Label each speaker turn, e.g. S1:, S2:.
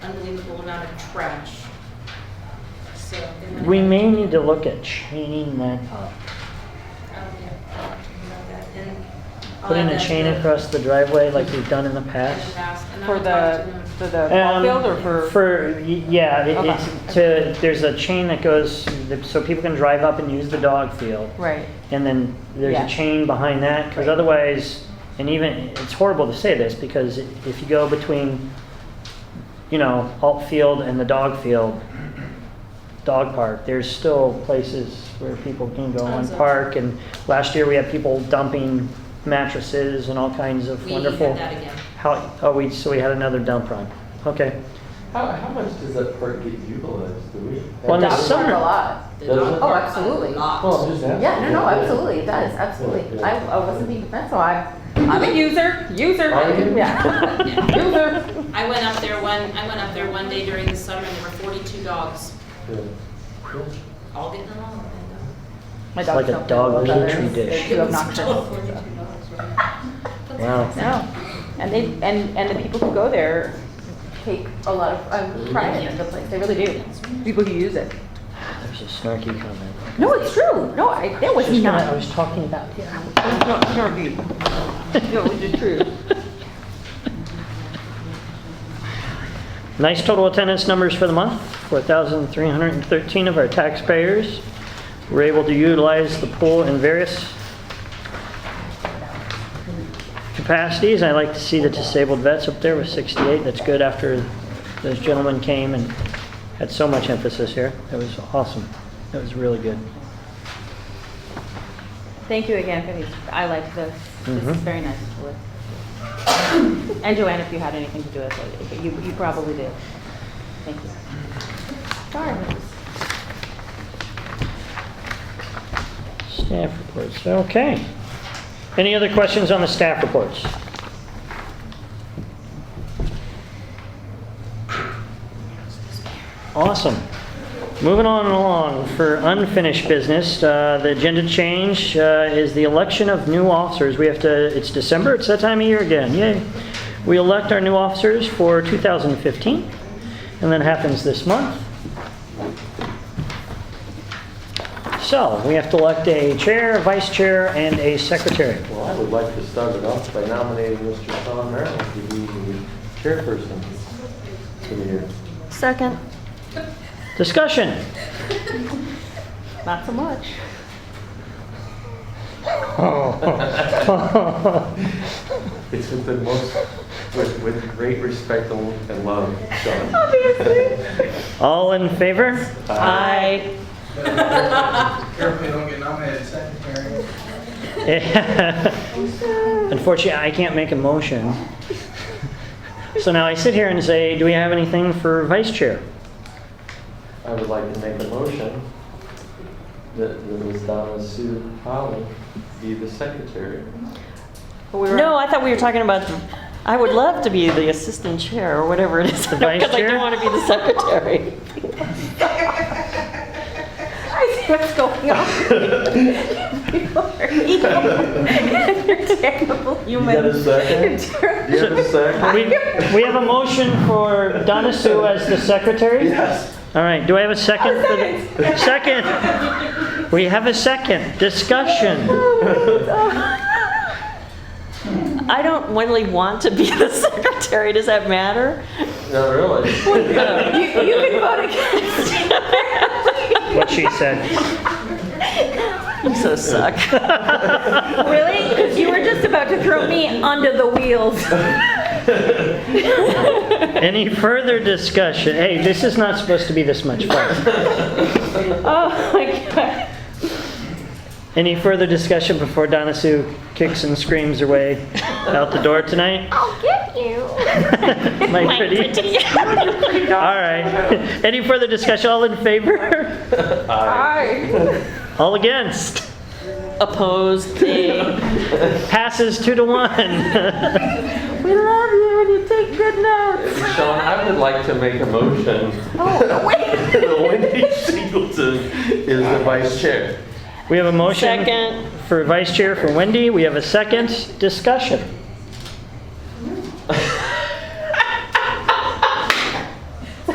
S1: equal amount of trash. So. they might-
S2: We may need to look at chaining that up.
S1: I don't care Oh, about that. And I'll
S2: Putting
S1: add
S2: a
S1: that
S2: chain
S1: to-
S2: across the driveway like we've done in the
S1: in the
S2: past.
S1: past, and
S3: For
S1: I'll talk
S3: the,
S1: to them.
S3: for the ball
S2: Um,
S3: field or for?
S2: For, y- yeah, it-
S3: Okay.
S2: it's to, there's a chain that goes, so people can drive up and use the dog field.
S3: Right,
S2: And then there's
S3: Yeah.
S2: a chain behind that, because otherwise, and even, it's horrible to say this, because i- if you go between, you know, alt field and the dog field, dog park, there's still places where people can go and
S1: Tons of-
S2: park, and last year we had people dumping mattresses and all kinds of
S1: We had
S2: wonderful.
S1: that again.
S2: How, oh, we, so we had another dump run, okay.
S4: How, how much does that park get utilized, do we?
S2: Well, in the
S4: Have-
S3: dogs park
S2: summer-
S3: a lot.
S1: The
S4: Does
S1: dog
S4: it? Oh,
S1: park
S3: absolutely.
S1: a lot.
S4: Well, I'm just asking.
S3: Yeah, no, no, absolutely, it does, absolutely. I, I wasn't being defensive, I, I'm a user, user,
S4: Are you?
S3: yeah.
S1: Yeah.
S3: User,
S1: I went up there one, I went up there one day during the summer and there were forty-two dogs,
S4: Yeah.
S1: all getting along. man.
S3: my
S2: It's
S3: dog's
S2: like a
S3: not
S2: dog
S3: playing with
S2: petri
S3: others.
S2: dish.
S3: They're
S1: It
S3: too
S1: was
S3: obnoxious.
S1: still Forty-two dogs, right?
S2: Wow.
S3: No, and they, and, and the people who go there take a lot of um, pride in the place, they really do, people who use it.
S2: There's a snarky comment.
S3: No, it's true, no, I, that was
S2: Just what I
S3: not,
S2: was talking about, yeah.
S3: no, no, you. No, it was true.
S2: Nice total attendance numbers for the month, 4,313 of our taxpayers were able to utilize the pool in various capacities. I like to see the disabled vets up there with 68, that's good after those gentlemen came and had so much emphasis here. That was awesome, that was really good.
S3: Thank you again for these, I like this, this
S4: Mm-hmm.
S2: Mhm.
S3: is very nice to look. And Joanne, if you had anything to do with it, but you, you probably did. Thank you. Sorry.
S2: Staff reports, okay. Any other questions on the staff reports? Awesome. Moving on along for unfinished business, uh, the agenda change uh, is the election of new officers. We have to, it's December, it's that time of year again, yay. We elect our new officers for 2015, and that happens this month. So, we have to elect a chair, vice chair, and a secretary.
S4: Well, I would like to start it off by nominating Mr. Tom Merrill to be the chairperson for the year.
S3: Second.
S2: Discussion.
S3: Not so much.
S4: It's with the most, with, with great respect and love, Sean.
S2: All in favor?
S3: I.
S5: Carefully don't get nominated secretary.
S2: Unfortunately, I can't make a motion. So now I sit here and say, do we have anything for vice chair?
S4: I would like to make a motion that that Ms. Donna Sue Holland be the secretary.
S3: No, I thought we were talking about.
S6: I would love to be the assistant chair or whatever it is.
S2: The vice
S6: Because I
S2: chair?
S6: don't want to be the secretary.
S3: I see what's going on. You are evil. You're terrible humans.
S4: got a
S3: You're terrible.
S4: second? Do you have a
S2: We,
S4: second?
S2: we have a motion for Donna Sue as the secretary?
S4: Yes.
S2: All right, do I have a second? for the Second. We have a second. Discussion.
S6: I don't really want to be the secretary. Does that matter?
S4: Not really.
S3: You, you can vote against.
S2: What she said.
S6: You so suck.
S3: Really? Because you were just about to throw me under the wheels.
S2: Any further discussion? Hey, this is not supposed to be this much fun.
S3: Oh my god.
S2: Any further discussion before Donna Sue kicks and screams her way out the door tonight?
S3: I'll get you.
S2: My pretty. All right. Any further discussion? All in favor? All against?
S6: Opposed. Nay.
S2: Passes two to one.
S3: We love you and you take good notes.
S4: Sean, I would like to make a motion
S3: Oh, wait.
S4: that Wendy Singleton is the vice chair.
S2: We have a motion
S6: Second.
S2: for vice chair for Wendy. We have a second discussion.